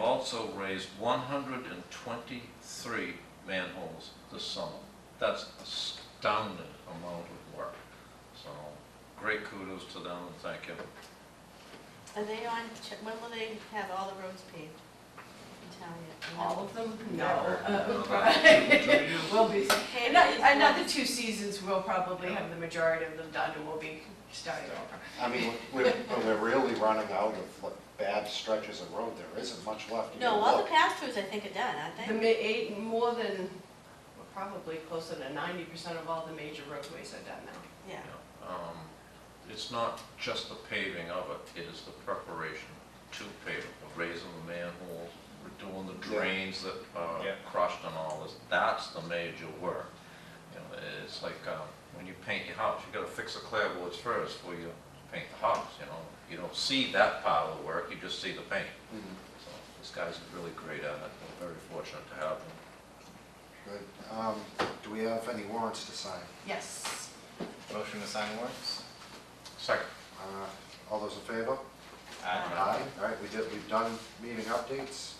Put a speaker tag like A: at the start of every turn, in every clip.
A: also raised one hundred and twenty-three manholes this summer. That's astounding amount of work. So, great kudos to them and thank you.
B: Are they on, ch- when will they have all the roads paved? in town yet? You know?
C: All of them? No.
A: Never.
C: Uh,
A: Do
C: right.
A: you?
C: Will be,
B: Paved
C: ano-
B: is
C: another
B: one-
C: two seasons, we'll probably have the majority of them done, and we'll be starting over.
D: I mean, we're, we're really running out of like, bad stretches of road, there isn't much left. You
B: No,
D: can
B: all the
D: look.
B: pastures, I think, are done, aren't
C: The
B: they?
C: ma, eight, more than, well, probably closer to ninety percent of all the major roadways are done now.
B: Yeah.
A: Um, It's not just the paving of it, it is the preparation to pave it, the raising the manholes, doing the drains that are
E: Yeah.
A: crushed and all this, that's the major work. You know, it's like, um, when you paint your house, you gotta fix the clapboards first before you paint the house, you know? You don't see that pile of work, you just see the paint.
D: Mhm,
A: So this guy's really great at it, we're very fortunate to have him.
D: Good. Um, do we have any warrants to sign?
C: Yes.
E: Motion to sign warrants?
A: Second,
D: Uh, all those in favor?
E: Aye.
D: Aye, all right, we did, we've done meeting updates,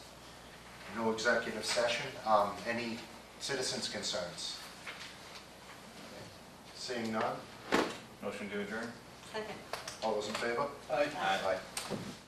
D: no executive session, um, any citizens' concerns? Seeing none,
E: Motion to adjourn?
B: Second.
D: all those in favor?
E: Aye.
D: Aye.